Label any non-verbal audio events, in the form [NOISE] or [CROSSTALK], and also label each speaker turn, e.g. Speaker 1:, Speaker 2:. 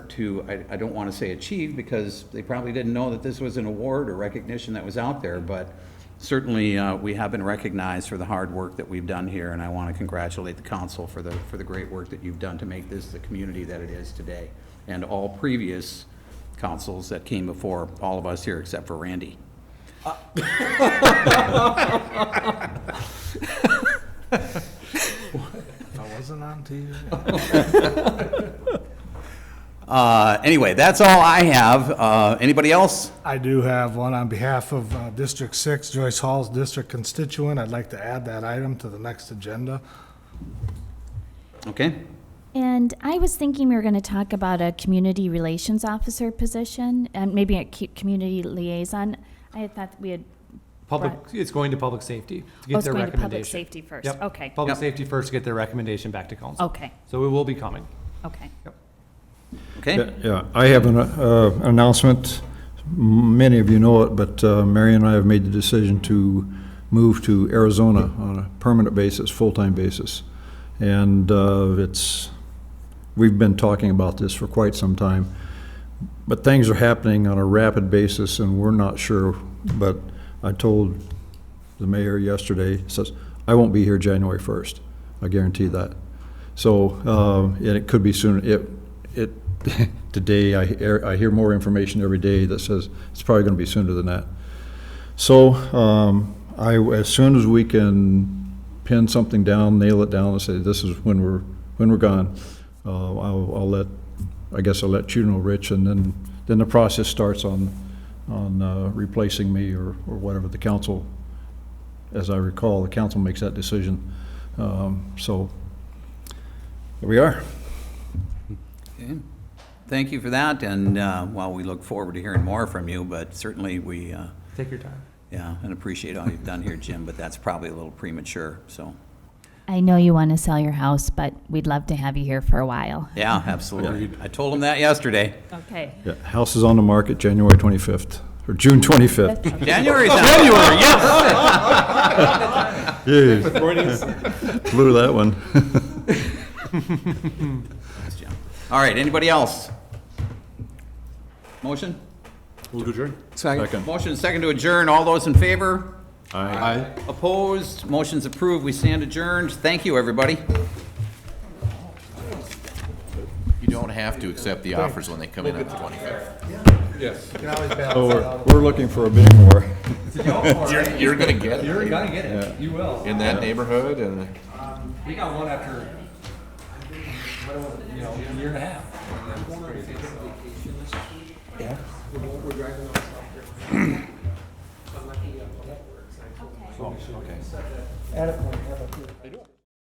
Speaker 1: to, I, I don't want to say achieve, because they probably didn't know that this was an award or recognition that was out there, but certainly, uh, we have been recognized for the hard work that we've done here, and I want to congratulate the council for the, for the great work that you've done to make this the community that it is today, and all previous councils that came before, all of us here except for Randy.
Speaker 2: I wasn't on to you.
Speaker 1: Uh, Anyway, that's all I have. Uh, Anybody else?
Speaker 2: I do have one on behalf of uh, District Six, Joyce Hall's district constituent. I'd like to add that item to the next agenda.
Speaker 1: Okay.
Speaker 3: And I was thinking we were going to talk about a community relations officer position and maybe a cu- community liaison. I had thought we had,
Speaker 4: Public,
Speaker 3: Right.
Speaker 4: it's going to public safety to
Speaker 3: oh,
Speaker 4: get
Speaker 3: it's
Speaker 4: their
Speaker 3: going to public
Speaker 4: recommendation.
Speaker 3: safety first.
Speaker 4: Yep.
Speaker 3: Okay, Oh.
Speaker 4: Public
Speaker 1: Yep.
Speaker 4: safety first to get their recommendation back to council.
Speaker 3: okay,
Speaker 4: So it will be coming.
Speaker 3: okay.
Speaker 1: Okay.
Speaker 5: Yeah, Yeah, I have an uh, announcement. Many of you know it, but uh, Mary and I have made the decision to move to Arizona on a permanent basis, full-time basis. And uh, it's, we've been talking about this for quite some time. But things are happening on a rapid basis, and we're not sure. But I told the mayor yesterday, says, I won't be here January 1st. I guarantee that. So, um, and it could be soon. It, it, [LAUGHS] today, I, hear- I hear more information every day that says it's probably going to be sooner than that. So, um, I, as soon as we can pin something down, nail it down and say, this is when we're, when we're gone, uh, I'll, I'll let, I guess I'll let you know, Rich, and then, then the process starts on, on uh, replacing me or, or whatever the council, as I recall, the council makes that decision. Um, so, there we are.
Speaker 1: Okay. Thank you for that, and uh, while we look forward to hearing more from you, but certainly we, uh,
Speaker 4: Take your time.
Speaker 1: yeah, and appreciate all you've done here, Jim, but that's probably a little premature, so,
Speaker 3: I know you want to sell your house, but we'd love to have you here for a while.
Speaker 1: yeah, absolutely. I told him that
Speaker 5: [LAUGHS]
Speaker 1: yesterday.
Speaker 3: Okay.
Speaker 5: Yeah, house is on the market January 25th, or June 25th.
Speaker 1: January.
Speaker 5: Oh,
Speaker 1: January, yes.
Speaker 5: [LAUGHS] Blew that one.
Speaker 1: All right, anybody else? Motion?
Speaker 5: Second.
Speaker 1: Motion second to adjourn. All those in favor?
Speaker 5: Aye.
Speaker 1: Opposed? Motion's approved. We stand adjourned. Thank you, everybody.
Speaker 6: You don't have to accept the offers when they come in on the twenty-fifth.
Speaker 5: So we're, we're looking for a bit more.
Speaker 6: You're, you're gonna get it
Speaker 4: You're gonna get it. You will.
Speaker 6: in that neighborhood and.
Speaker 4: We got one after, you know, a year and a half. Yeah. We're driving on South Carolina. So, okay.